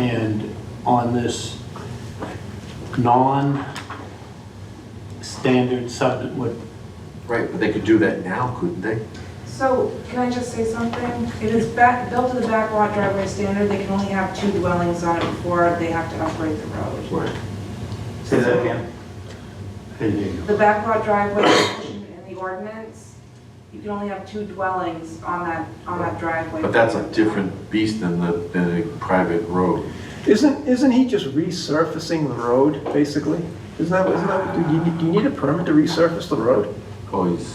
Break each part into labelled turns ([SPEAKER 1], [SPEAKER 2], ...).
[SPEAKER 1] And on this non-standard sub, what,
[SPEAKER 2] Right, but they could do that now, couldn't they?
[SPEAKER 3] So, can I just say something? It is back, built to the back lot driveway standard, they can only have two dwellings on it before they have to upgrade the road.
[SPEAKER 2] Right.
[SPEAKER 4] Say that again.
[SPEAKER 3] The back lot driveway provision in the ordinance, you can only have two dwellings on that, on that driveway.
[SPEAKER 2] But that's a different beast than the, than a private road.
[SPEAKER 4] Isn't, isn't he just resurfacing the road, basically? Isn't that, isn't that, do you, need- do you need a permit to resurface the road?
[SPEAKER 2] Always,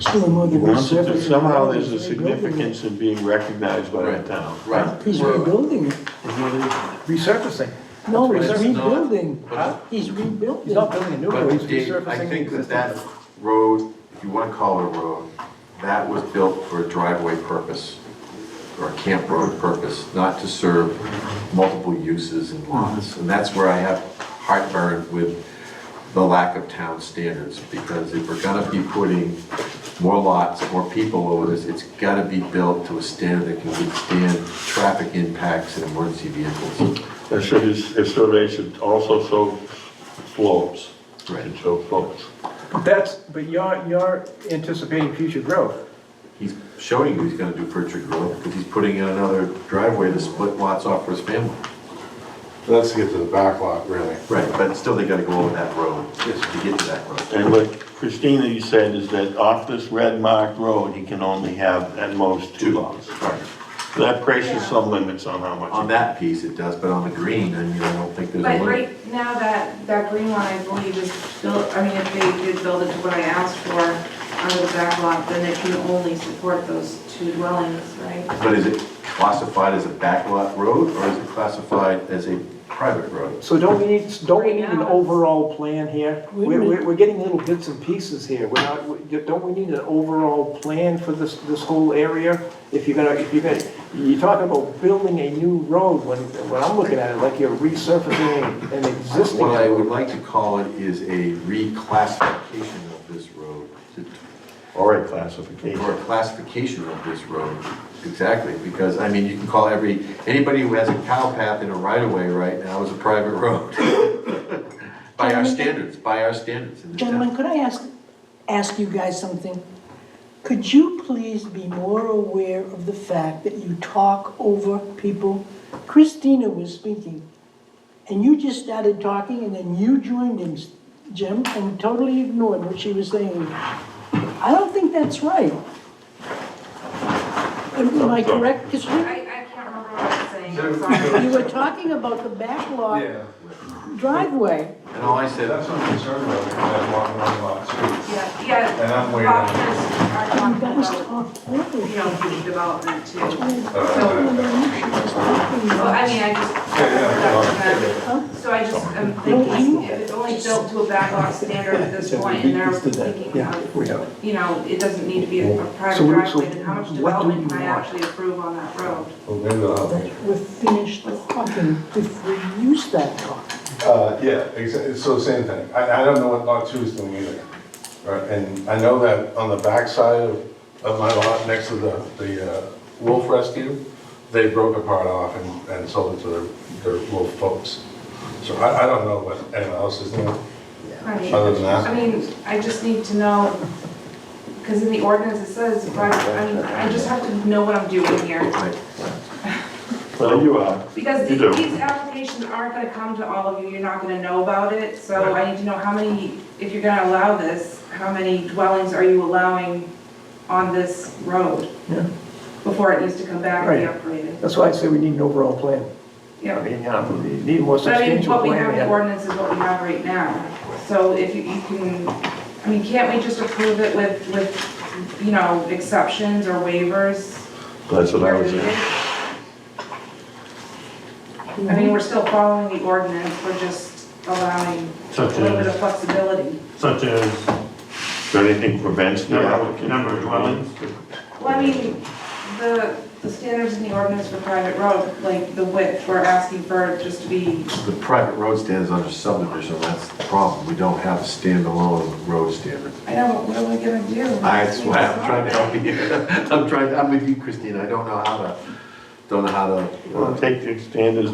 [SPEAKER 5] Still more than
[SPEAKER 6] Once
[SPEAKER 5] resurfacing.
[SPEAKER 6] it-
[SPEAKER 5] the
[SPEAKER 6] Somehow
[SPEAKER 5] road
[SPEAKER 6] there's a
[SPEAKER 5] is rebuilding it.
[SPEAKER 6] significance in being recognized by the
[SPEAKER 2] Right.
[SPEAKER 6] town.
[SPEAKER 2] right.
[SPEAKER 5] He's rebuilding it.
[SPEAKER 4] Resurfacing.
[SPEAKER 5] No,
[SPEAKER 2] That's
[SPEAKER 5] he's
[SPEAKER 2] right.
[SPEAKER 5] rebuilding.
[SPEAKER 2] Huh?
[SPEAKER 5] He's rebuilding.
[SPEAKER 4] He's not building a new road,
[SPEAKER 2] But
[SPEAKER 4] he's
[SPEAKER 2] Dave, I
[SPEAKER 4] resurfacing the
[SPEAKER 2] think that
[SPEAKER 4] existing.
[SPEAKER 2] that road, if you want to call it a road, that was built for a driveway purpose or a camp road purpose, not to serve multiple uses and lots. And that's where I have heartburn with the lack of town standards, because if we're gonna be putting more lots, more people over this, it's gotta be built to a standard that can withstand traffic impacts and emergency vehicles.
[SPEAKER 6] It should, it survey should also show slopes.
[SPEAKER 2] Right.
[SPEAKER 6] And show slopes.
[SPEAKER 4] But That's, but you're, you're anticipating future growth.
[SPEAKER 2] He's showing you he's gonna do Pritchard Road, because he's putting in another driveway to split lots off for his family.
[SPEAKER 7] Let's get to the back lot, really.
[SPEAKER 2] Right. But still, they gotta go over that road, to get to that road.
[SPEAKER 6] And what Christina, you said is that off this red marked road, he can only have at most two lots.
[SPEAKER 2] Right.
[SPEAKER 6] That places some limits on how much.
[SPEAKER 2] On that piece, it does, but on the green, I mean, I don't think there's a
[SPEAKER 3] But
[SPEAKER 2] limit.
[SPEAKER 3] right now, that, that green line, I believe, is built, I mean, if they did build it to what I asked for under the back lot, then it can only support those two dwellings, right?
[SPEAKER 2] But is it classified as a backlot road, or is it classified as a private road?
[SPEAKER 4] So don't we need, don't we need
[SPEAKER 3] Right
[SPEAKER 4] an
[SPEAKER 3] now.
[SPEAKER 4] overall plan here?
[SPEAKER 5] Wait
[SPEAKER 4] We're,
[SPEAKER 5] a
[SPEAKER 4] we're,
[SPEAKER 5] minute.
[SPEAKER 4] we're getting little bits and pieces here, we're not, we- don't we need an overall plan for this, this whole area? If you're gonna, if you're gonna, you're talking about building a new road, when, when I'm looking at it, like you're resurfacing an existing
[SPEAKER 2] What I
[SPEAKER 4] road.
[SPEAKER 2] would like to call it is a reclassification of this road, to
[SPEAKER 6] Or a
[SPEAKER 2] or
[SPEAKER 6] classification.
[SPEAKER 2] a classification of this road, exactly, because, I mean, you can call every, anybody who has a cow path in a right-of-way right now is a private road. By our standards, by our standards in the
[SPEAKER 5] Gentlemen,
[SPEAKER 2] town.
[SPEAKER 5] could I ask, ask you guys something? Could you please be more aware of the fact that you talk over people? Christina was speaking, and you just started talking, and then you joined in, Jim, and totally ignored what she was saying. I don't think that's right. Am am I correct, Christina?
[SPEAKER 3] I, I can't remember what I was saying, I'm sorry.
[SPEAKER 5] You were talking about the backlog
[SPEAKER 7] Yeah,
[SPEAKER 5] driveway.
[SPEAKER 2] And all I said,
[SPEAKER 7] that's what I'm concerned about, because that's one, one lot, too.
[SPEAKER 3] Yeah, yeah.
[SPEAKER 7] And I'm waiting.
[SPEAKER 3] Doctors
[SPEAKER 5] You
[SPEAKER 3] are talking
[SPEAKER 5] guys
[SPEAKER 3] about,
[SPEAKER 5] talk over.
[SPEAKER 3] you know, the development too. So,
[SPEAKER 7] Uh,
[SPEAKER 3] well,
[SPEAKER 5] I
[SPEAKER 3] I mean, I just.
[SPEAKER 7] Yeah, yeah,
[SPEAKER 3] So I just am thinking, if it's only built to a backlot standard at this point, and they're thinking
[SPEAKER 4] Yeah,
[SPEAKER 3] of,
[SPEAKER 4] we have.
[SPEAKER 3] you know, it doesn't need to be a a private
[SPEAKER 4] So we- so
[SPEAKER 3] driveway, then how much
[SPEAKER 4] what do
[SPEAKER 3] development
[SPEAKER 4] you
[SPEAKER 3] can I
[SPEAKER 4] want?
[SPEAKER 3] actually approve on that road?
[SPEAKER 7] Well, maybe they'll help me.
[SPEAKER 5] We're finished talking before you start talking.
[SPEAKER 7] Uh, yeah, exactly, so same thing. I, I don't know what lot two is doing either. Right, and I know that on the backside of, of my lot, next to the, the uh, wolf rescue, they broke a part off and, and sold it to their, their wolf folks. So I, I don't know what anyone else is doing.
[SPEAKER 3] Right.
[SPEAKER 7] Other than that?
[SPEAKER 3] I mean, I just need to know, because in the ordinance it says, but, I mean, I just have to know what I'm doing here.
[SPEAKER 2] right,
[SPEAKER 6] Well, you are.
[SPEAKER 3] Because
[SPEAKER 6] You
[SPEAKER 3] these,
[SPEAKER 6] do.
[SPEAKER 3] these applications aren't gonna come to all of you, you're not gonna know about it, so I need to know how many, if you're gonna allow this, how many dwellings are you allowing on this road?
[SPEAKER 4] Yeah.
[SPEAKER 3] Before it needs to come back and be upgraded.
[SPEAKER 4] That's why I say we need an overall plan. I
[SPEAKER 3] Yeah,
[SPEAKER 4] mean, yeah, we need a more
[SPEAKER 3] but I mean,
[SPEAKER 4] substantial
[SPEAKER 3] what we
[SPEAKER 4] plan.
[SPEAKER 3] have in the
[SPEAKER 4] yeah.
[SPEAKER 3] ordinance is what we have right now, so if you, you can, I mean, can't we just approve it with, with, you know, exceptions or waivers?
[SPEAKER 6] That's what I was saying.
[SPEAKER 3] I mean, we're still following the ordinance, we're just allowing a
[SPEAKER 1] Such
[SPEAKER 3] little
[SPEAKER 1] as-
[SPEAKER 3] bit of flexibility.
[SPEAKER 1] such as
[SPEAKER 6] Is there anything prevents the
[SPEAKER 1] number
[SPEAKER 6] applicant?
[SPEAKER 1] number of dwellings?
[SPEAKER 3] Well, I mean, the, the standards in the ordinance for private road, like the width, we're asking for it just to be,
[SPEAKER 2] the private road stands under subdivision, that's the problem, we don't have a standalone road standard.
[SPEAKER 3] I know, what are we gonna do?
[SPEAKER 2] I, that's why I'm trying to uh, help you, I'm trying, I'm with you, Christine, I don't know how to don't know how to. uh,
[SPEAKER 6] Take the extenders